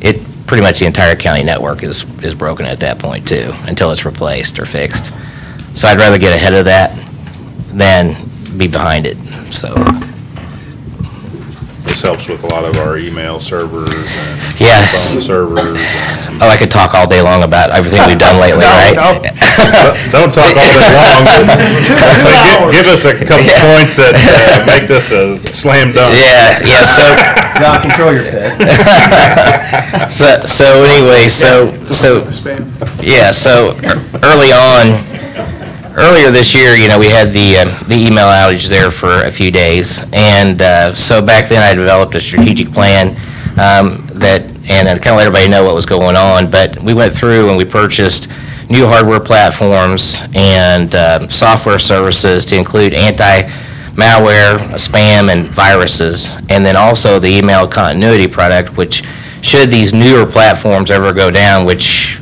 pretty much the entire county network is, is broken at that point too, until it's replaced or fixed. So I'd rather get ahead of that than be behind it, so. This helps with a lot of our email servers and Yes, phone servers. and- oh, I could talk all day long about everything we've done lately, No, right? no. Don't talk all day long. but- but gi- Give us a couple points that uh, make this a slam dunk. Yeah, yeah, so, John, control your pit. So, so anyway, so, so, yeah, so ear- early on, earlier this year, you know, we had the, uh, the email outage there for a few days. And uh, so back then, I developed a strategic plan um, that, and I kind of let everybody know what was going on. But we went through and we purchased new hardware platforms and um, software services to include anti-malware, spam, and viruses. And then also the email continuity product, which should these newer platforms ever go down, which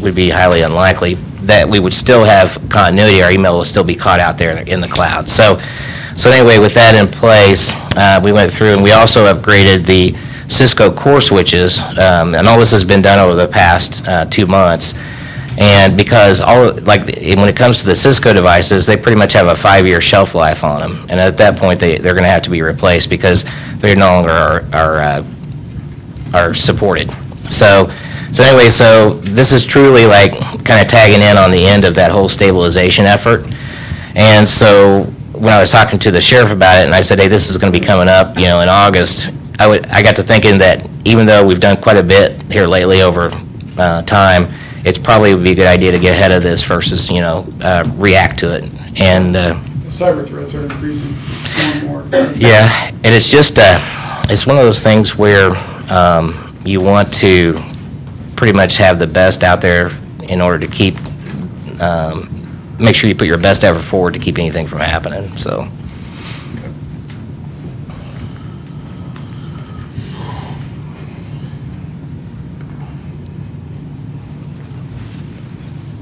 would be highly unlikely, that we would still have continuity, our email will still be caught out there in the cloud. So, so anyway, with that in place, uh, we went through and we also upgraded the Cisco core switches, um, and all this has been done over the past uh, two months. And because all, like, when it comes to the Cisco devices, they pretty much have a five-year shelf life on them. And at that point, they, they're going to have to be replaced because they no longer are, are uh, are supported. So, so anyway, so this is truly like kind of tagging in on the end of that whole stabilization effort. And so when I was talking to the sheriff about it and I said, hey, this is going to be coming up, you know, in August, I would, I got to thinking that even though we've done quite a bit here lately over uh, time, it's probably would be a good idea to get ahead of this versus, you know, uh, react to it. And, uh, cyber threats are increasing more and more. yeah, and it's just, uh, it's one of those things where, um, you want to pretty much have the best out there in order to keep, um, make sure you put your best effort forward to keep anything from happening, so.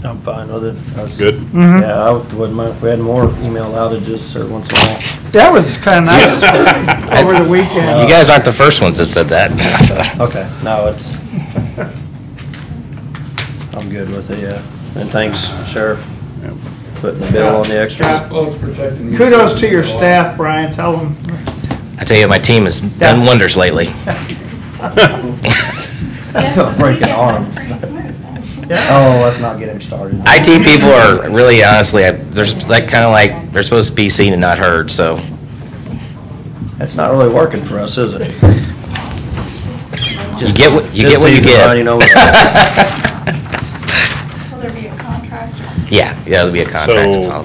I'm fine with it. I was- Good. Mm-hmm. Yeah, I would- wouldn't mind if we had more email outages every once in a while. That was kind of nice over the You weekend. guys aren't the first ones that said that. Okay, no, it's, I'm good with it, yeah. And thanks, Sheriff, putting the bill on the extras. God loves protecting me. Kudos to your staff, Brian. Tell them, I tell you, my team has done Yeah. wonders lately. Breaking arms. Oh, let's not get him started. IT people are really honestly, I- they're s- like, kind of like, they're supposed to be seen and not heard, so. That's not really working for us, is it? You get what, you get what you Just teasing Ronnie, you know what- get. Will there be a contract? Yeah, yeah, it'll be a contract to So- follow.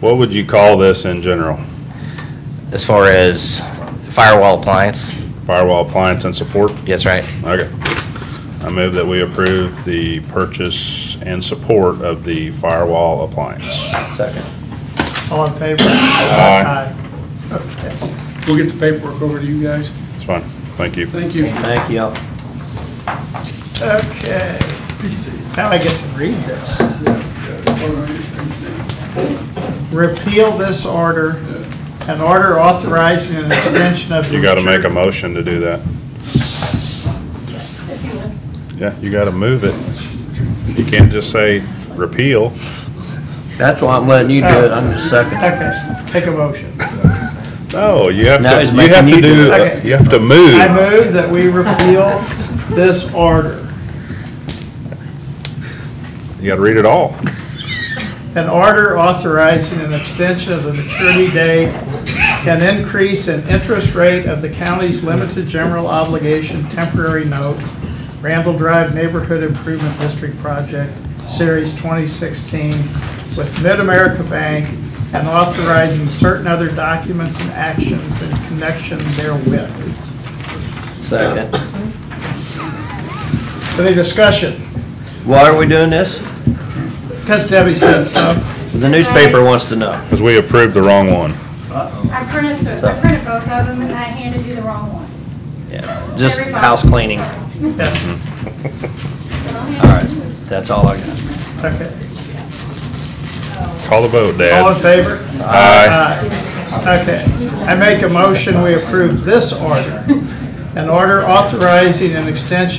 What would you call this in general? As far as firewall appliance, Firewall appliance and support? yes, right? Okay. I move that we approve the purchase and support of the firewall appliance. Second. all in favor? Aye. Aye. Okay. We'll get the paperwork over to you guys. It's fine. Thank you. Thank you. Thank you. Okay. Now I get to read this. Repeal this order, an order authorizing an extension of. You gotta make a motion to do that. If you would. Yeah, you gotta move it. You can't just say repeal. That's why I'm letting you do it, I'm just second. Okay, take a motion. No, you have Now to, he's you have making to you do do, it. Okay. you have to move. I move that we repeal this order. You gotta read it all. An order authorizing an extension of the maturity date, an increase in interest rate of the county's limited general obligation temporary note, Randall Drive Neighborhood Improvement District Project, Series 2016, with Mid-America Bank, and authorizing certain other documents and actions in connection therewith. Second. Any discussion? Why are we doing this? Because Debbie said so. The newspaper wants to know. Because we approved the wrong one. I printed, the- I printed both of them and I handed you the wrong one. Yeah, Just Everybody. house cleaning. Yes, All right, that's all I got. okay. Call the vote, All in Dad. favor? Aye. Aye. Okay, I make a motion, we approve this order. An order authorizing an extension